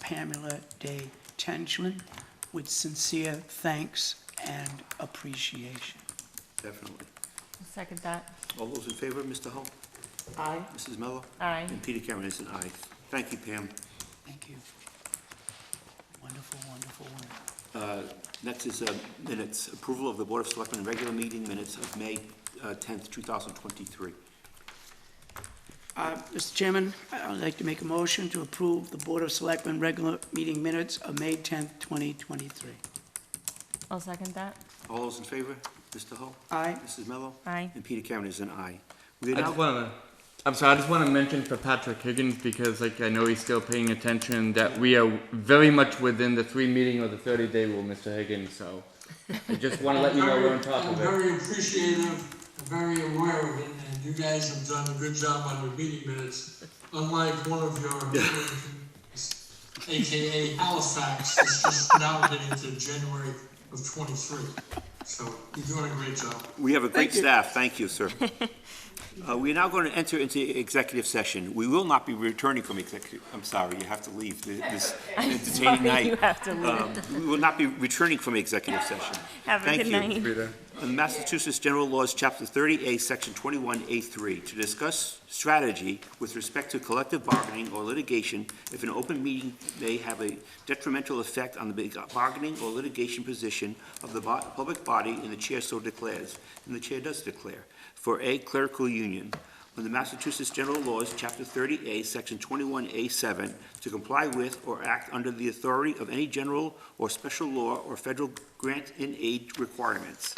Pamela Day Tenslin with sincere thanks and appreciation. Definitely. Second that. All those in favor, Mr. Hull? Aye. Mrs. Mello? Aye. And Peter Cameron is an aye. Thank you, Pam. Thank you. Wonderful, wonderful, wonderful. Uh, Next is uh, minutes, approval of the Board of Selectmen regular meeting minutes of May uh, 10th, 2023. Uh, Mr. Chairman, I- I'd like to make a motion to approve the Board of Selectmen regular meeting minutes of May 10th, 2023. I'll second that. All those in favor, Mr. Hull? Aye. Mrs. Mello? Aye. And Peter Cameron is an aye. We are I just now, want to. I'm sorry. I just want to mention for Patrick Higgins because, like, I know he's still paying attention. That we are very much within the three meeting or the 30 day rule, Mr. Higgins. So I just want to let you know we're on top I'm of it. very appreciative, I'm very aware of it, and you guys have done a good job on your meeting minutes, unlike one of your, AKA Halifax, that's just now getting to January of twenty-three. So you're doing a great job. we have a great staff. Thank you, sir. Uh, We are now going to enter into executive session. We will not be returning from executive, I'm sorry, you have to leave th- this entertaining night. You have to leave. Um, We will not be returning from executive session. Have a Thank good you. night. In Massachusetts General Laws, Chapter 30A, Section 21A3, to discuss strategy with respect to collective bargaining or litigation if an open meeting may have a detrimental effect on the big- uh, bargaining or litigation position of the bo- public body, and the chair so declares, and the chair does declare, for a clerical union. Under Massachusetts General Laws, Chapter 30A, Section 21A7, to comply with or act under the authority of any general or special law or federal grant and aid requirements.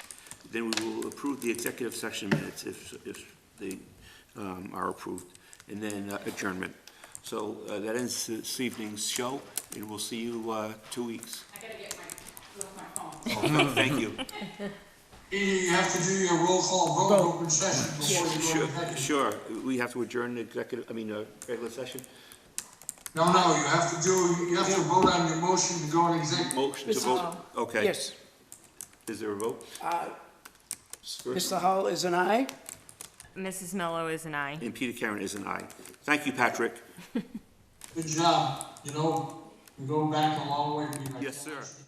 Then we will approve the executive session minutes if, if they um, are approved, and then uh, adjournment. So uh, that ends this evening's show, and we'll see you uh, two weeks. I gotta get my, look my phone. Okay, Thank you. Edie, you have to do your roll call vote, open session before you go Sure, to executive. sure. We have to adjourn the executive, I mean, uh, regular session? No, no, you have to do, you have to vote on your motion to go in executive. Motion to Mr. vote? Okay. Yes, Is there a vote? Mr. Hall is an aye? Mrs. Mello is an aye. And Peter Karen is an aye. Thank you, Patrick. Good job, you know, you go back a long way. to be like Yes, that. sir.